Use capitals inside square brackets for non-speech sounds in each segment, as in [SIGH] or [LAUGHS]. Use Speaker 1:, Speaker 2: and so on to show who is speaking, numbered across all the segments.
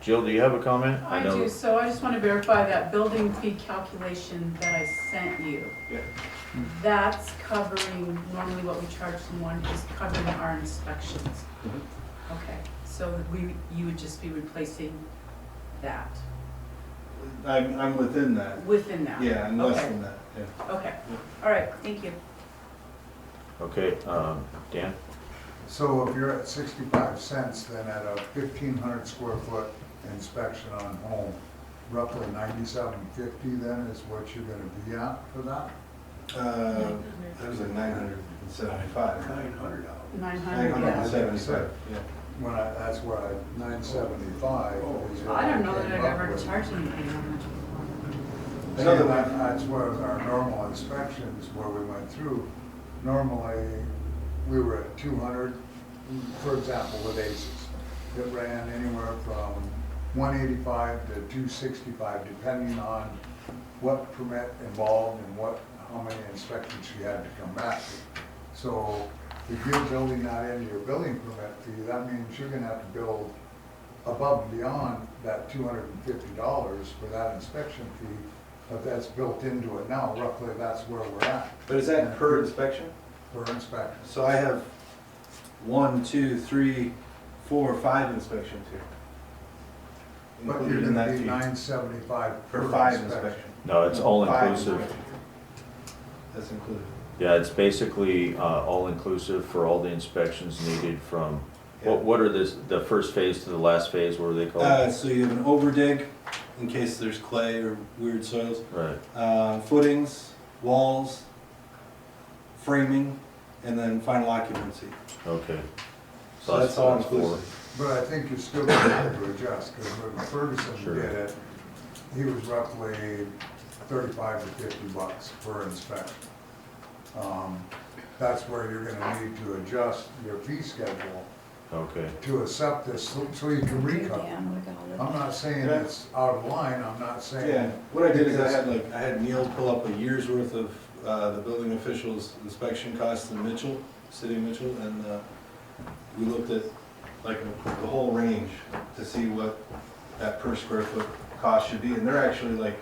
Speaker 1: Jill, do you have a comment?
Speaker 2: I
Speaker 1: know-
Speaker 2: do, so I just want to verify that building fee calculation that I sent you.
Speaker 3: Yeah.
Speaker 2: That's covering, normally what we charge someone is covering our inspections.
Speaker 3: Mhm.
Speaker 2: Okay, so we, you would just be replacing that,
Speaker 3: I'm, I'm within that,
Speaker 2: within that?
Speaker 3: yeah, I'm less
Speaker 2: Okay,
Speaker 3: than that, yeah.
Speaker 2: Okay, all right, thank you.
Speaker 1: Okay, um, Dan?
Speaker 4: So if you're at sixty-five cents, then at a fifteen hundred square foot inspection on home, roughly ninety-seven fifty then is what you're gonna be at for that?
Speaker 3: Uh, That was like nine hundred and seventy-five.
Speaker 5: Nine hundred dollars.
Speaker 2: Nine
Speaker 3: Nine
Speaker 2: hundred,
Speaker 3: hundred and
Speaker 2: yeah.
Speaker 3: seventy-five, yeah.
Speaker 4: When I, that's what I, nine seventy-five is what
Speaker 2: Oh, I
Speaker 4: I
Speaker 2: don't know that
Speaker 4: came
Speaker 2: I've
Speaker 4: up
Speaker 2: ever
Speaker 4: with.
Speaker 2: charged anything on that.
Speaker 3: I know
Speaker 4: Another
Speaker 3: that
Speaker 4: one,
Speaker 3: we-
Speaker 4: that's where our normal inspections where we went through, normally, we were at two hundred, for example, with ACES. It ran anywhere from one eighty-five to two sixty-five, depending on what permit involved and what, how many inspections you had to come back to. So if you're building that into your building permit fee, that means you're gonna have to build above and beyond that two hundred and fifty dollars for that inspection fee, but that's built into it now, roughly that's where we're at
Speaker 3: But is that per inspection?
Speaker 4: for inspections.
Speaker 3: So I have one, two, three, four, five inspections here.
Speaker 4: But
Speaker 3: Included
Speaker 4: you're
Speaker 3: in
Speaker 4: gonna
Speaker 3: that
Speaker 4: be
Speaker 3: fee.
Speaker 4: nine seventy-five per
Speaker 3: Per five
Speaker 4: inspection.
Speaker 3: inspection.
Speaker 1: No, it's all
Speaker 3: Five
Speaker 1: inclusive.
Speaker 3: inspection. That's included.
Speaker 1: Yeah, it's basically, uh, all inclusive for all the inspections needed from,
Speaker 3: Yeah.
Speaker 1: what, what are this, the first phase to the last phase, what are they
Speaker 3: Uh,
Speaker 1: called?
Speaker 3: so you have an overdig, in case there's clay or weird soils,
Speaker 1: Right,
Speaker 3: uh, footings, walls, framing, and then final occupancy.
Speaker 1: okay.
Speaker 3: So that's all
Speaker 1: four.
Speaker 3: inclusive.
Speaker 4: But I think you're still gonna have to adjust, because when Ferguson
Speaker 1: Sure.
Speaker 4: did it, he was roughly thirty-five to fifty bucks per inspection. Um, That's where you're gonna need to adjust your fee schedule
Speaker 1: Okay,
Speaker 4: to accept this, so so you can recover.
Speaker 6: Dan, we got all that.
Speaker 4: I'm not saying
Speaker 3: Yeah.
Speaker 4: it's out of line, I'm not
Speaker 3: Yeah,
Speaker 4: saying,
Speaker 3: what I did is I had like, I had Neil pull up a year's worth of, uh, the building officials inspection costs in Mitchell, city of Mitchell, and, uh, we looked at like the whole range to see what that per square foot cost should be, and they're actually like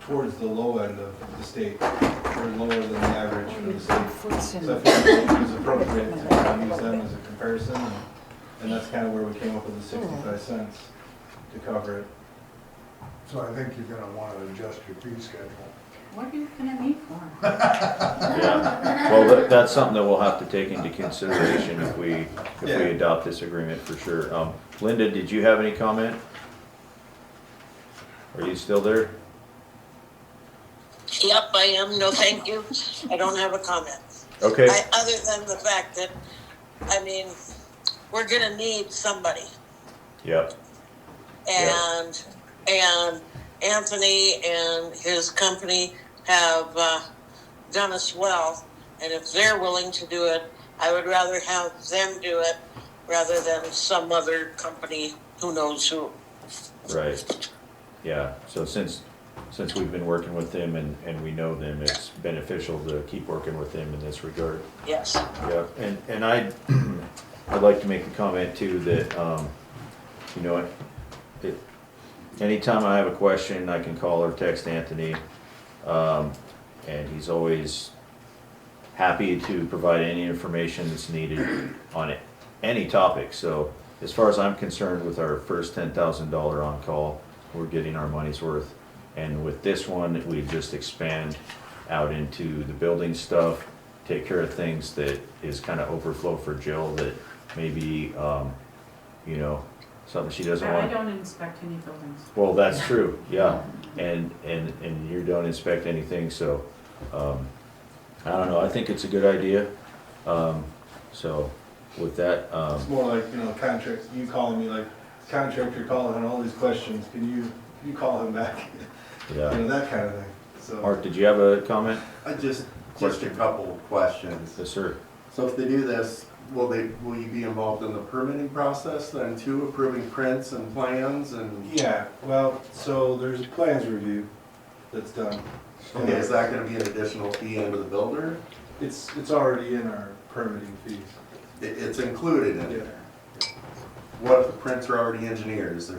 Speaker 3: towards the low end of the state, or lower than the average for the state.
Speaker 6: Foots in.
Speaker 3: So I figured it was appropriate to kind of use them as a comparison, and- and that's kind of where we came up with the sixty-five cents to cover it.
Speaker 4: so I think you're gonna wanna adjust your fee schedule.
Speaker 2: What are you looking at me for?
Speaker 1: yeah. Well, that, that's something that we'll have to take into consideration if we, if we
Speaker 3: Yeah.
Speaker 1: adopt this agreement for sure. Um, Linda, did you have any comment? Are you still there?
Speaker 7: Yep, I am. No, thank you. I don't have a comment.
Speaker 1: Okay.
Speaker 7: I, other than the fact that, I mean, we're gonna need somebody.
Speaker 1: Yep,
Speaker 7: And, and Anthony and his company have, uh, done us well. And if they're willing to do it, I would rather have them do it rather than some other company, who knows who.
Speaker 1: right. Yeah, so since, since we've been working with them and, and we know them, it's beneficial to keep working with them in this regard.
Speaker 7: Yes.
Speaker 1: Yeah, and, and I, [CLEARS THROAT] I'd like to make a comment too that, um, you know, it- it, anytime I have a question, I can call or text Anthony. Um, and he's always happy to provide any information that's needed on it, any topic. So as far as I'm concerned with our first ten thousand dollar on-call, we're getting our money's worth. And with this one, we just expand out into the building stuff, take care of things that is kind of overflow for Jill that maybe, um, you know, something she doesn't
Speaker 2: I I
Speaker 1: want.
Speaker 2: don't inspect any buildings.
Speaker 1: Well, that's true, yeah, and, and, and you don't inspect anything, so, um, I don't know, I think it's a good idea. Um, so, with that,
Speaker 3: It's
Speaker 1: um,
Speaker 3: more like, you know, contracts, you calling me like, contractor calling and all these questions, can you, can you call him back? [LAUGHS] You
Speaker 1: yeah.
Speaker 3: know, that kind of thing, so.
Speaker 1: Mark, did you have a comment?
Speaker 8: I just, just a
Speaker 1: Question.
Speaker 8: couple of questions.
Speaker 1: Yes, sir.
Speaker 8: So if they do this, will they, will you be involved in the permitting process then too, approving prints and plans and?
Speaker 3: Yeah, well, so there's a plans review that's done.
Speaker 8: Okay, is that gonna be an additional fee under the builder?
Speaker 3: It's, it's already in our permitting fees.
Speaker 8: It, it's included in
Speaker 3: Yeah.
Speaker 8: it. What if the prints are already engineered? Is there